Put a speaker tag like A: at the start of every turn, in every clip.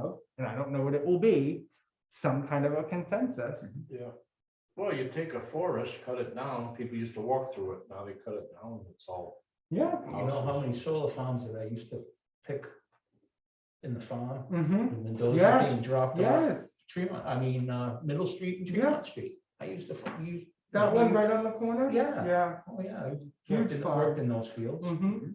A: of, and I don't know what it will be, some kind of a consensus.
B: Yeah. Well, you take a forest, cut it down. People used to walk through it. Now they cut it down. It's all.
A: Yeah.
C: You know how many solar farms that I used to pick in the farm?
A: Mm-hmm.
C: And then those are
A: Yes,
C: being dropped off
A: Yes,
C: Tremont, I mean, uh, Middle Street and
A: Yeah.
C: Tremont Street. I used to, fu- use.
A: that one right on the corner?
C: Yeah.
A: Mm-hmm. Yeah.
C: Oh, yeah. I worked
A: Huge
C: in-
A: farm.
C: Worked in those fields.
A: Mm-hmm.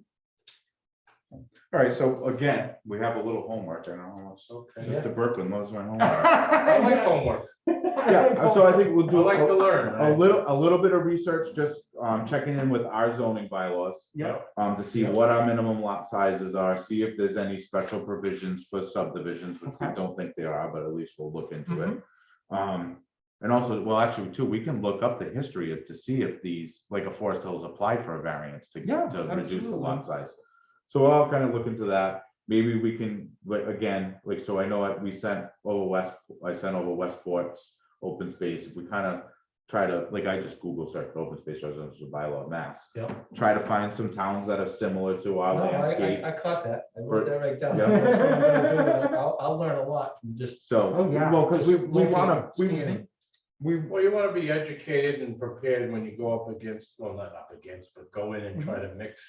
D: All right, so again, we have a little homework, I don't know, how much-
B: Okay.
C: Yeah.
D: Mr. Berkman loves my homework.
B: I like
A: Yeah,
B: homework.
D: Yeah, so I think we'll
B: I
D: do
B: like to
D: a
B: learn.
D: a little, a little bit of research, just um checking in with our zoning bylaws.
A: Yeah.
D: Um, to see what our minimum lot sizes are, see if there's any special provisions for subdivisions, which we
A: Okay. Mm-hmm.
D: don't think there are, but at least we'll look into it. Um, and also, well, actually, too, we can look up the history of, to see if these, like a Forest Hills applied for a variance to
A: Yeah,
D: to reduce the
A: absolutely.
D: lot size. So I'll kind of look into that. Maybe we can, like, again, like, so I know I- we sent over West, I sent over Westport's open space. We kind of try to, like, I just Google search open space residential bylaw mass.
C: Yeah.
D: Try to find some towns that are similar to
C: No,
D: our
C: I,
D: landscape.
C: I, I caught that. I wrote
D: For-
C: that right down.
D: Yeah.
C: That's what I'm gonna do. and I'll, I'll learn a lot from just.
D: So,
A: Oh, yeah.
D: well, because we,
C: just
D: we
C: looking,
D: want to, we,
C: scanning.
D: we,
B: Well, you want to be educated and prepared when you go up against, well, not up against, but go in and
D: Mhm.
B: try to mix.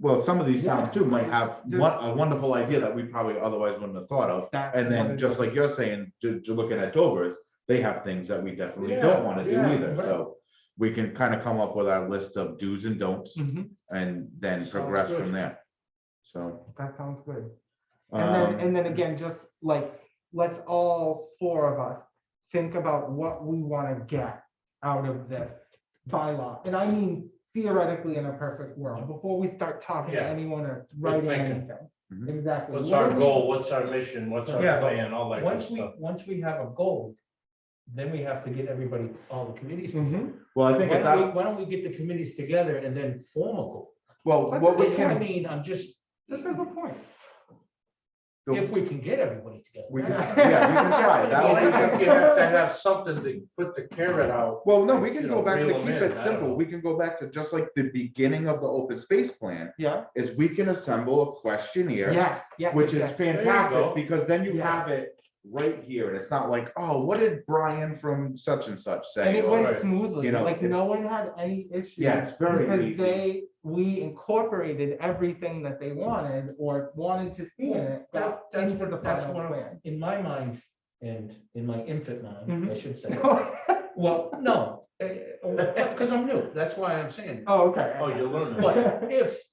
D: well, some of these towns too might have
A: Yeah.
D: one, a wonderful idea that we probably otherwise wouldn't have thought of.
A: that's
D: And
A: what
D: then,
A: it
D: just like
A: is.
D: you're saying, to, to looking at Dover's, they have things that we definitely
B: Yeah,
D: don't wanna do
B: yeah,
D: either,
B: right.
D: so. We can kind of come up with our list of do's and don'ts
A: Mhm,
D: and then
B: Sounds
D: progress
B: good.
D: from there. So.
A: That sounds good. And then,
D: um,
A: and then again, just like, let's all four of us think about what we want to get out of this bylaw. And I mean theoretically in a perfect world, before we start talking to
B: Yeah.
A: anyone or writing
B: thinking.
A: anything.
D: Mhm.
A: Exactly.
B: What's
A: What
B: our
A: do we-
B: goal? What's our mission? What's our
C: Yeah, but
B: plan? All that good
C: Once we,
B: stuff.
C: once we have a goal, then we have to get everybody, all the committees.
A: Mhm.
D: Well, I
C: Why
D: think at
C: don't
D: that,
C: we- why don't we get the committees together and then form a goal?
D: well, what we
C: I
D: can,
C: mean, I'm just,
A: That's a good point.
C: if we can get everybody together.
D: we can, yeah, we can try, that
B: Well,
D: would be.
B: I think you have to have something to put the carrot out.
D: Well, no, we
B: you
D: can
B: know,
D: go back to
B: reel 'em
D: keep
B: in, I
D: it
B: don't
D: simple,
B: know.
D: we can go back to just like the beginning of the open space plan,
A: Yeah,
D: is we can assemble a questionnaire.
A: yes, yes.
D: Which is
A: yes, yes.
B: go.
D: fantastic, because then you
A: Yeah.
D: have it right here, and it's not like, oh, what did Brian from such and such
A: And
D: say?
A: it
D: Or-
A: went
B: alright,
A: smoothly,
D: you know,
A: like
D: it-
A: no one had any issues.
D: Yeah, it's very
A: Because
D: easy.
A: they, we incorporated everything that they wanted or wanted to see in it,
C: That-
A: that
C: that's
A: into the
C: what- that's
A: final
C: what I-
A: plan.
C: In my mind, and in my infant mind, I
A: Mhm.
C: should say, well, no, because I'm new, that's why I'm saying.
A: Oh, okay.
B: Oh, you're learning.
C: But if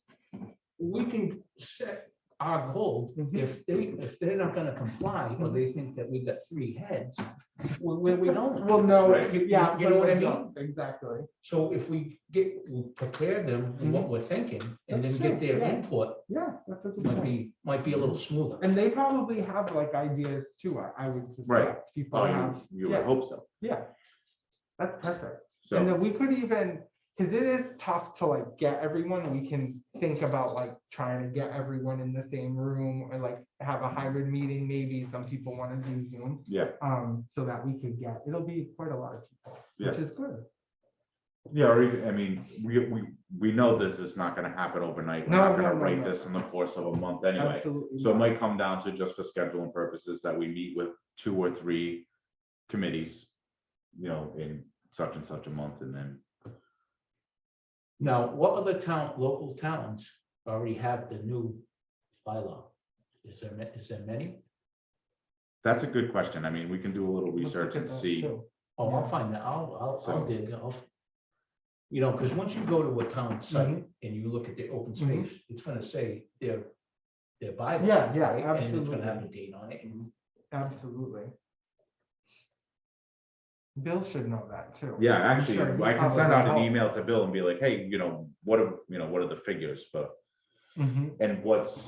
C: we can set our goal,
A: Mhm.
C: if they, if they're not gonna comply, or they think that we've got three heads, where, where we going?
A: Well, no,
B: Right.
A: you- yeah.
C: You- you know
A: we
C: what I
A: would
C: mean?
A: jump, Exactly.
C: So if we get, we prepare them on what we're thinking, and then
A: That's
C: get
A: true,
C: their
A: yeah.
C: input,
A: Yeah, that's a good
C: might
A: point.
C: be, might be a little smoother.
A: And they probably have like ideas too, I- I would suspect. People
B: Oh,
D: Well,
A: have,
D: you- you would
A: Yeah.
D: hope so,
A: yeah. That's perfect. And
D: so,
A: then we could even, because it is tough to like get everyone, we can think about like trying to get everyone in the same room or like have a hybrid meeting, maybe some people want to do Zoom.
D: yeah,
A: Um, so that we could get, it'll be quite a lot of people, which is good.
D: yeah, or even, I mean, we, we, we know this is not gonna happen overnight, we're
A: No,
D: not
A: no,
D: gonna
A: no,
D: write
A: no.
D: this in the course of a month anyway.
A: Absolutely.
D: So it might come down to just for scheduling purposes that we meet with two or three committees, you know, in such and such a month and then.
C: Now, what other town, local towns already have the new bylaw? Is there, ma- is there many?
D: That's a good question. I mean, we can do a little
A: Let's look
D: research
A: at
D: and
A: that,
D: see.
A: too.
C: Oh, I'll
A: Yeah.
C: find that, I'll, I'll, I'll
D: So-
C: dig, I'll. You know, because once you go to a town site and you look at the open
A: Mhm.
C: space, it's gonna say their, their bylaw.
A: Yeah, yeah,
C: right? And it's
A: absolutely.
C: gonna have a date on it, and
A: Absolutely. Bill should know that too.
D: Yeah,
A: I'm
D: actually,
A: sure he
D: I can send
A: probably
D: out an
A: helped.
D: email to Bill and be like, hey, you know, what are, you know, what are the figures for,
A: Mhm.
D: and what's.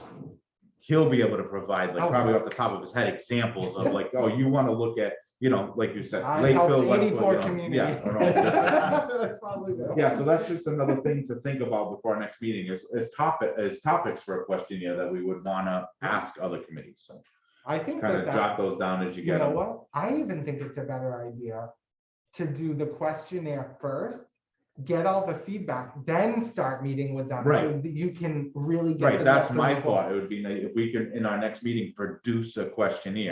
D: He'll be able to provide, like,
A: Oh.
D: probably off the top of his head, examples of like, oh, you wanna look at, you know, like you said.
A: I helped
D: Lakeville, Westwood,
A: 84
D: you know, yeah,
A: communities.
D: or all this.
A: That's probably what-
D: Yeah, so that's just another thing to think about before our next meeting is, is topic, is topics for a questionnaire that we would wanna ask other committees. So
A: I think
D: kind
A: that
D: of
A: that,
D: jot those down as you
A: you
D: get
A: know
D: them.
A: what, I even think it's a better idea to do the questionnaire first get all the feedback, then start meeting with them. so
D: Right.
A: that You can really. get
D: Right,
A: the
D: that's
A: best of
D: my
A: both.
D: thought. It would be nice if we can, in our next meeting, produce a questionnaire.